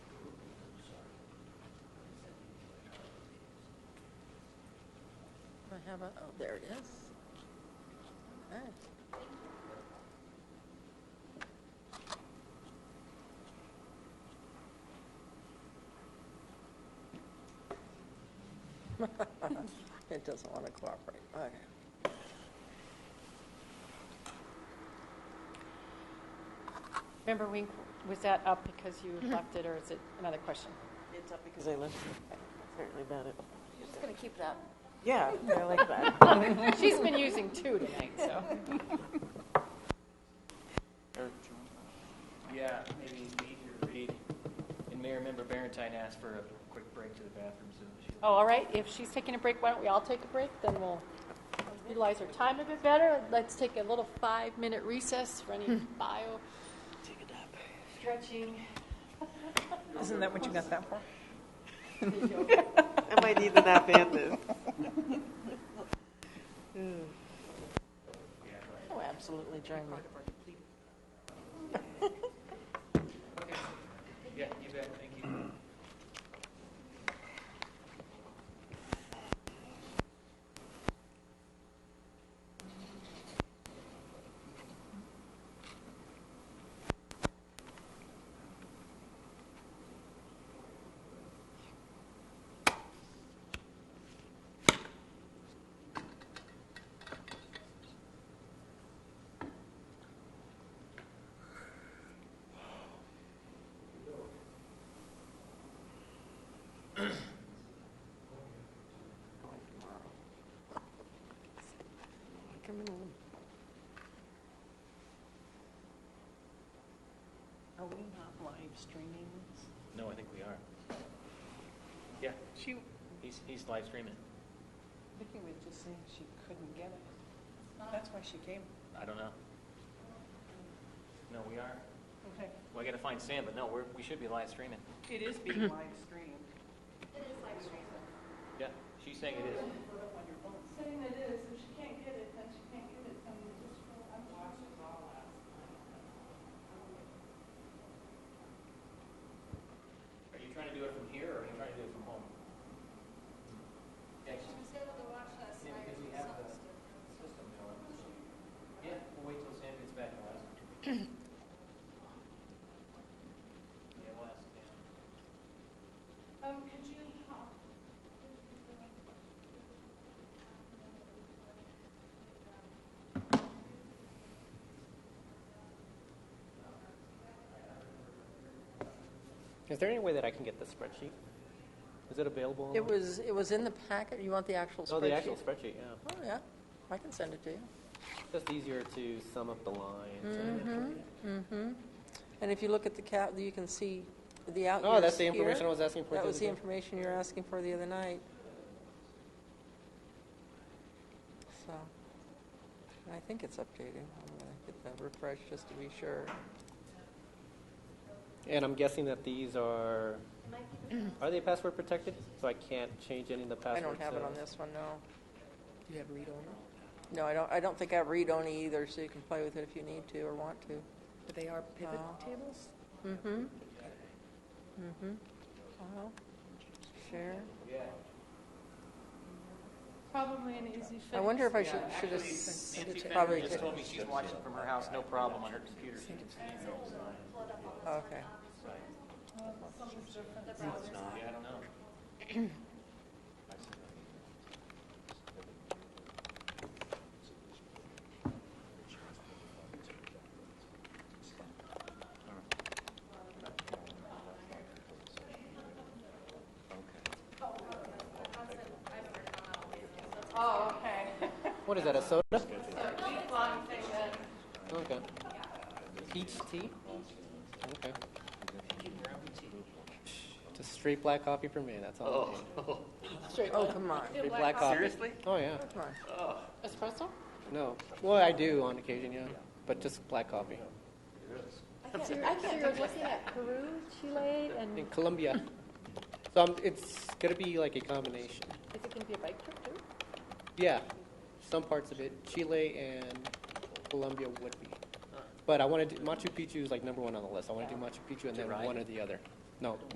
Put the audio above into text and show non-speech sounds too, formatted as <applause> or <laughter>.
How about, oh, there it is. Okay. <laughs> It doesn't want to cooperate, okay. Member Wink, was that up because you left it, or is it another question? It's up because I left it. Apparently about it. You're just going to keep that. Yeah, I like that. She's been using two tonight, so. Yeah, maybe meet your read. And Mayor Member Barentine asked for a quick break to the bathroom, so she'll. Oh, all right, if she's taking a break, why don't we all take a break? Then we'll utilize our time a bit better. Let's take a little five-minute recess for any bio. Take a nap. Stretching. Isn't that what you got that for? I might need the nap and this. Oh, absolutely drain me. Okay. Yeah, you bet, thank you. Coming in. Are we not live streaming this? No, I think we are. Yeah, She, he's, he's live streaming. Vicky was just saying she couldn't get it. That's why she came. I don't know. No, we are. Okay. Well, I gotta find Sam, but no, we're, we should be live streaming. It is being live streamed. Yeah, she's saying it is. saying it is, if she can't get it, then she can't get it, then we just, I'm watching it all last Are you trying to do it from here, or are you trying to do it from home? Yeah, she's- was able to watch last Yeah, because we have the system going. Yeah, we'll wait till Sam gets back and ask. <clears throat> Yeah, we'll ask Sam. Um, could you, um, Is there any way that I can get the spreadsheet? Is it available? It was, it was in the packet, you want the actual spreadsheet? Oh, the actual spreadsheet, yeah. Oh, yeah, I can send it to you. Just easier to sum up the lines. Mm. and- And if you look at the cap, you can see the out Oh, years that's the information here. I was asking for. That was other the day. information you were asking for the other night. So, and I think it's updating. I'm gonna get that refresh just to be sure. And I'm guessing that these are, are they password protected? So I can't change any of the I passwords? don't have it so- on this one, no. Do you have read only? No, I don't, I don't think I have read-only either, so you can play with it if you need to or want to. But they are pivot Oh. tables? Mm-hmm. Mm-hmm. Uh-huh. Share. probably an easy fix. I wonder if I should, should have Nancy sent it to Fenton probably. just told me she's watching from her house, no problem, on her computer. She can see it all the time. Okay. No, it's not. Yeah, I don't know. Oh, okay. What is that, a soda? Okay. Peach tea? Okay. Just straight black coffee for me, that's all. I need. Oh, come on, Straight black coffee. Seriously? Oh, yeah. come on. Espresso? No. Well, I do on occasion, yeah. But just black coffee. I can't, I can't, was looking at Peru, Chile, and In Colombia. So I'm, it's going to be like a combination. is it gonna be a bike trip too? Yeah, some parts of it. Chile and Colombia would be. But I want to do Machu Picchu is like number one on the list. I want to do Machu Picchu and then ride? one or the other. No,